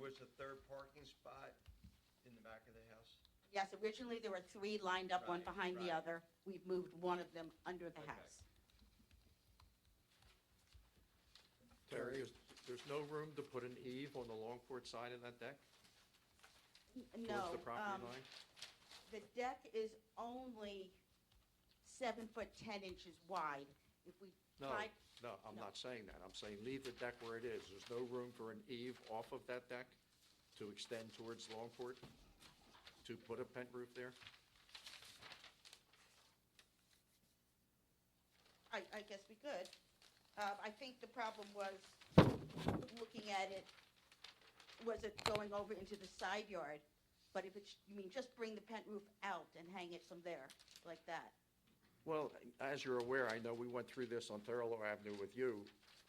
was a third parking spot in the back of the house? Yes, originally there were three lined up, one Right, behind the right. other. We've moved one of them under the Okay. house. Terry, is- there's no room to put an eave on the Longport side of that deck? N- Towards No, the um, property line? the deck is only seven foot ten inches wide. If we No, tried, no, I'm no. not saying that. I'm saying leave the deck where it is. There's no room for an eave off of that deck to extend towards Longport, to put a pent roof there? I, I guess we could. Uh, I think the problem was looking at it, was it going over into the side yard? But if it's, you mean, just bring the pent roof out and hang it from there, like that. Well, as you're aware, I know we went through this on Thurlow Avenue with you,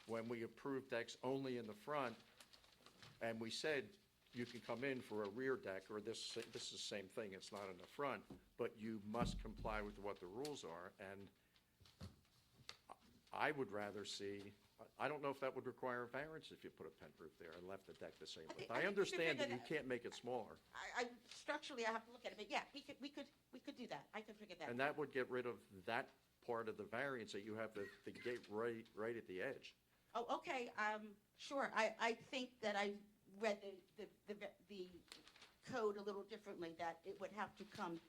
when we approved decks only in the front, and we said, you can come in for a rear deck, or this, this is the same thing, it's not in the front, but you must comply with what the rules are, and I would rather see, I don't know if that would require a variance if you put a pent roof there and left the deck the same I width. think- I think I you should understand that figure you that- can't make it smaller, I, I, structurally, I have to look at it, but yeah, we could, we could, we could do that. I could figure that out. and that would get rid of that part of the variance that you have the, the gate right, right at the edge. Oh, okay, um, sure, I, I think that I read the, the, the, the code a little differently, that it would have to come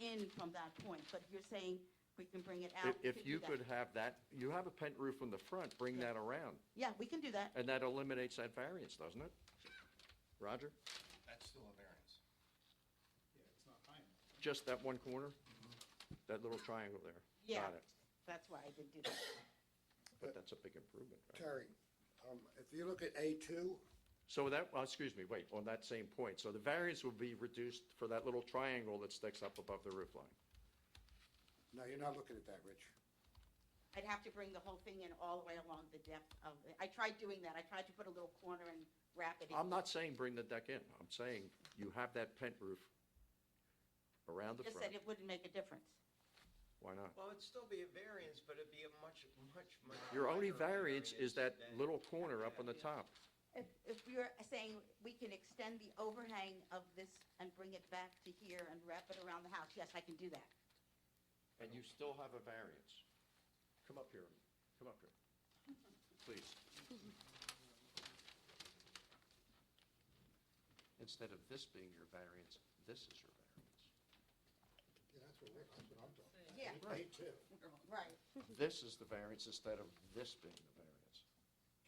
in from that point, but you're saying we can bring it out? If- we If can do you that. could have that, you have a pent roof on the front, bring Yeah. that around, Yeah, we can do that, and that eliminates that variance, doesn't it? Roger? That's still a variance. Yeah, it's not high enough. Just that one corner? That little triangle there? yeah, Got it. that's why I didn't do that. But that's a big improvement, right? Terry, um, if you look at A2, So that, oh, excuse me, wait, on that same point, so the variance will be reduced for that little triangle that sticks up above the roof line. no, you're not looking at that, Rich. I'd have to bring the whole thing in all the way along the depth of, it. I tried doing that, I tried to put a little corner and wrap it in. I'm not saying bring the deck in, I'm saying you have that pent roof around the Just said it front, wouldn't make a difference. why not? Well, it'd still be a variance, but it'd be a much, much, much. Your only minor variance is that variance than- little corner up on the Yeah. top. If, if you're saying we can extend the overhang of this and bring it back to here and wrap it around the house, yes, I can do that. and you still have a variance. Come up here, come up here, please. Instead of this being your variance, this is your variance. Yeah, that's what, we're- that's what I'm talking about. Yeah, A2, right. This is the variance instead of this being the variance.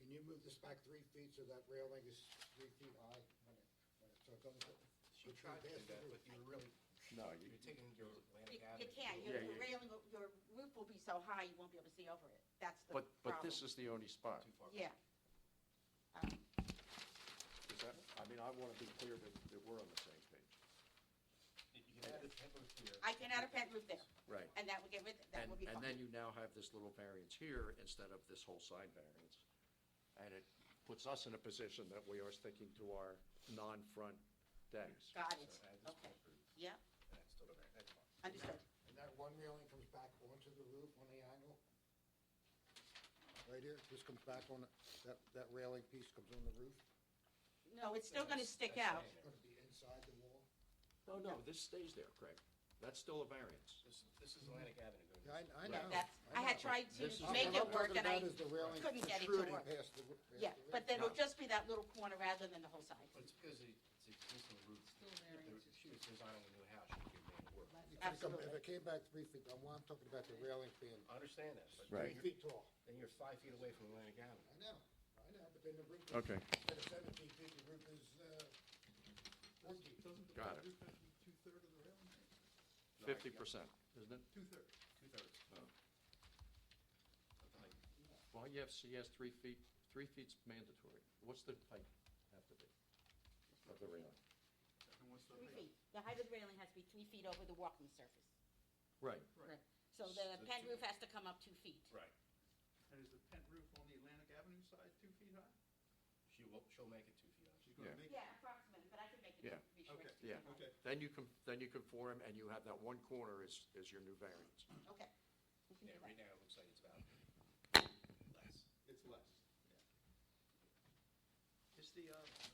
can you move this back three feet so that railing is three feet high when it, when it, so it doesn't? hit She the tree tried to do past the that, roof? but you were really, No, you're taking your You Atlantic you Avenue. can't, Yeah, your yeah. railing, will- your roof will be so high, you won't be able to see over it. That's the But, problem. but this is the only spot. Too far. Yeah. Um, Is that, I mean, I want to be clear that, that we're on the same page. You can add a pent roof here. I can add a pent roof there, Right. and that will get rid, that And, will be fine. and then you now have this little variance here instead of this whole side variance. And it puts us in a position that we are sticking to our non-front decks. Got So it, add this okay, pent roof, yeah, and it's still a variance, that's fine. understood. And that one railing comes back onto the roof on the angle? Right here, this comes back on, the- that, that railing piece comes on the roof? No, it's still gonna That's- stick that's out. staying It's there. gonna be inside the wall? No, no, this stays there, Craig. That's still a variance. This, this is Atlantic Avenue going. Yeah, I, I know. Yeah, that's, I had tried to This is- make What it I'm work and talking I, about is the railing couldn't get it to protruding work. past the roo- past yeah, the but railing. then it'll just be that little corner rather than the whole side. But it's because it- it's existing roof. If she was designing a new house, she could make it work. You could've come- If absolutely. it came back three feet, I'm, I'm talking about the railing being I understand that, but three Right. feet tall. then you're five feet away from Atlantic Avenue. I know, I know, but then the roof. is- Okay. Instead of seventeen feet, the roof is, uh, fourteen. Got it. Fifty percent, isn't it? Two-thirds. Oh. Something like- Well, you have, so you have three feet, three feet's mandatory. What's the height have to be of the railing? And what's the Three height? feet. The height of the railing has to be three feet over the walking surface. Right. Right. So So the pent two- roof has to come up two feet. Right. And is the pent roof on the Atlantic Avenue side two feet high? She will, she'll make it two feet up. She's gonna Yeah. make it- Yeah, approximately, but I can make it, Yeah. be sure. Okay. it's two Yeah. feet high. Okay. Then you can, then you conform and you have that one corner is, is your new variance. Okay. We can do Yeah, that. right now, it looks like it's about less. It's less. Is the, uh,